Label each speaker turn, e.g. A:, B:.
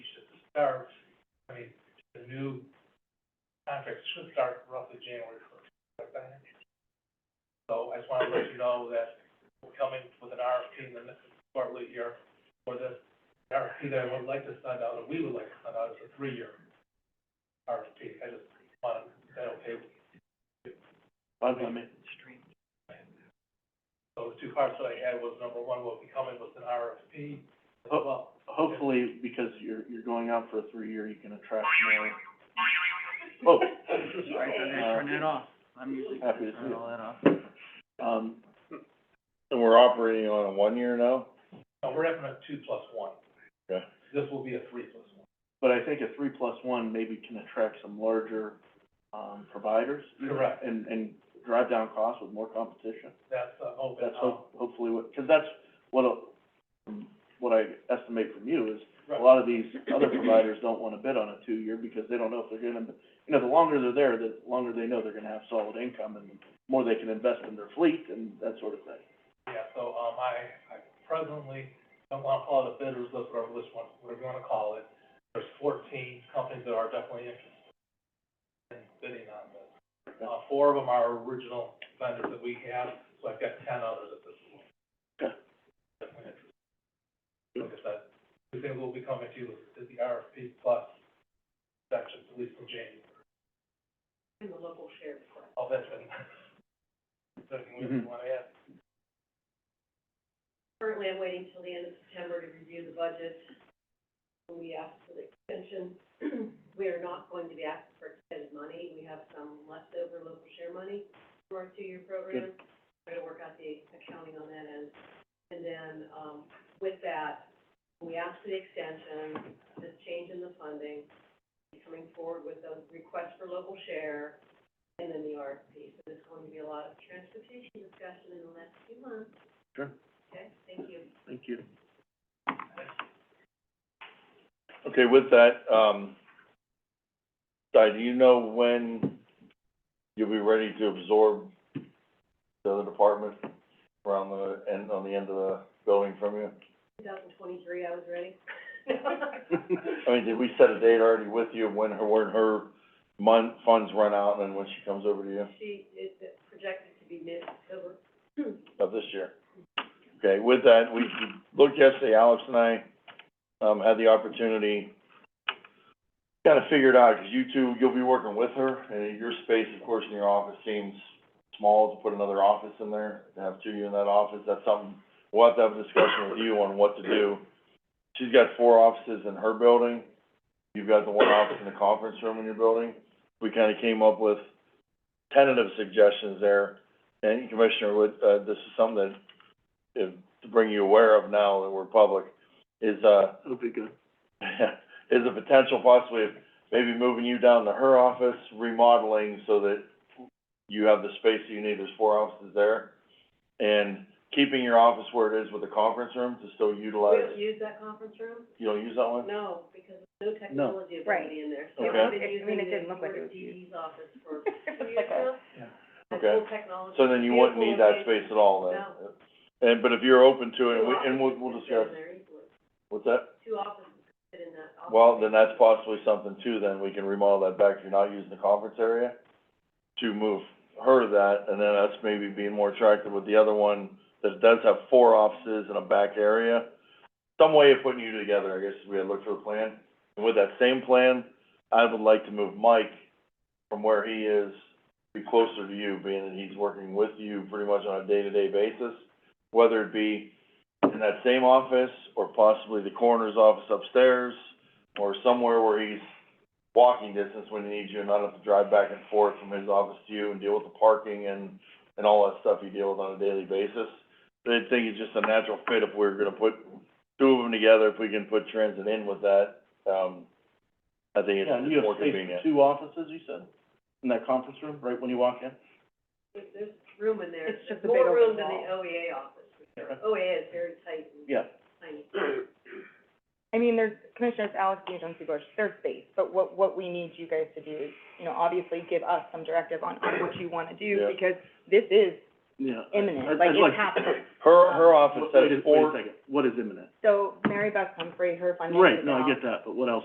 A: start, I mean, the new contract should start roughly January first. So I just wanted to let you know that we're coming with an RFP in the next quarterly here for this. The RFP that I would like to send out, and we would like to send out, is a three-year RFP. I just wanted, is that okay with So the two parts that I had was, number one, will be coming with an RFP as
B: Oh.
A: well.
B: Hopefully, because you're, you're going out for a three-year, you can attract more. Oh,
A: Sorry,
B: Uh,
C: that off. I'm usually
B: happy to see it.
C: that off.
B: um,
D: And we're operating on a one-year now?
A: No, we're having a two plus one.
D: Okay.
A: This will be a three plus one.
B: but I think a three plus one maybe can attract some larger, um, providers
A: Correct.
B: and, and drive down costs with more competition.
A: That's, uh, open.
B: That's ho- hopefully what, because that's what, a- what I estimate from you is a lot of these other providers don't wanna bid on a two-year because they don't know if they're gonna, you know, the longer they're there, the longer they know they're gonna have solid income and the more they can invest in their fleet and that sort of thing.
A: Yeah, so, um, I, I presently don't wanna call it a bidders list, whatever list one, whatever you wanna call it. There's fourteen companies that are definitely interested in bidding on this. Uh, four of them are original vendors that we have, so I've got ten others at this point.
B: Okay.
A: Definitely interested. Like I said, we think we'll be coming to you with the RFP plus section, at least in January. In the local share. Oh, that's been, that's something we
B: Mhm.
A: wanna add.
E: Currently, I'm waiting till the end of September to review the budget. When we ask for the extension, we are not going to be asking for extended money. We have some leftover local share money for our two-year program. We're gonna work out the accounting on that end. And then, um, with that, we ask for the extension, this change in the funding, coming forward with a request for local share, and then the RFP. So there's going to be a lot of transportation discussion in the next few months.
B: Sure.
E: Okay, thank you.
B: Thank you.
D: Okay, with that, um, Di, do you know when you'll be ready to absorb the other department around the end, on the end of the building from you?
E: Two thousand twenty-three, I was ready.
D: I mean, did we set a date already with you when her, when her mon- funds run out and when she comes over to you
E: She is projected to be mid-October.
D: of this year? Okay, with that, we looked yesterday, Alex and I, um, had the opportunity, kinda figured out, 'cause you two, you'll be working with her, and your space, of course, in your office seems small to put another office in there, to have two of you in that office, that's something, we'll have to have a discussion with you on what to do. She's got four offices in her building, you've got the one office in the conference room in your building. We kinda came up with tentative suggestions there, and Commissioner Wood, uh, this is something that, if, to bring you aware of now that we're public, is, uh,
B: It'll be good.
D: is a potential possibly of maybe moving you down to her office, remodeling so that you have the space that you need, there's four offices there. And keeping your office where it is with the conference room to still
E: We
D: utilize,
E: don't use that conference room?
D: you don't use that one?
E: No, because there's no technology ability in there. So
D: Okay.
E: we've been
F: I mean, it didn't
E: using the
F: look like it
E: Florida
F: was used.
E: DD's office for two
F: It's
E: years
F: like a-
E: now.
A: Yeah.
E: That's
D: Okay.
E: full technology.
D: So then you wouldn't need that
E: Beautiful
D: space at all then? And, but if you're open to it, and we,
E: location.
D: and we'll,
E: Two
D: we'll
E: offices could
D: discuss,
E: fit in there easily.
D: what's that?
E: Two offices could fit in that office.
D: Well, then that's possibly something too, then we can remodel that back if you're not using the conference area, to move her to that, and then us maybe being more attractive with the other one that does have four offices and a back area. Some way of putting you together, I guess, is we had looked for a plan. And with that same plan, I would like to move Mike from where he is, be closer to you, being that he's working with you pretty much on a day-to-day basis, whether it be in that same office or possibly the coroner's office upstairs or somewhere where he's walking distance when he needs you and not have to drive back and forth from his office to you and deal with the parking and, and all that stuff you deal with on a daily basis. But I think it's just a natural fit if we're gonna put two of them together, if we can put transit in with that, um, I think it's
B: Yeah, and you
D: more
B: have space
D: convenient.
B: for two offices, you said, in that conference room, right when you walk in?
E: There's, there's room in there.
F: It's just a
E: There's
F: big
E: More room
F: open
E: than the OEA office. OEA is very tight and
B: Yeah,
E: tiny.
F: I mean, there's, Commissioners Alex and Jonesy Bush, there's space, but what, what we need you guys to do is, you know, obviously give us some directive on, on what you wanna do,
D: Yeah.
F: because this is
B: yeah.
F: imminent,
B: I'd-
F: like,
B: I'd
F: it's happening.
D: Her, her office
B: Wait a-
D: has
B: Wait
D: four.
B: a second, what is imminent?
F: So Mary Beth Humphrey, her funding is
B: Right, no, I
F: out.
B: get that, but what else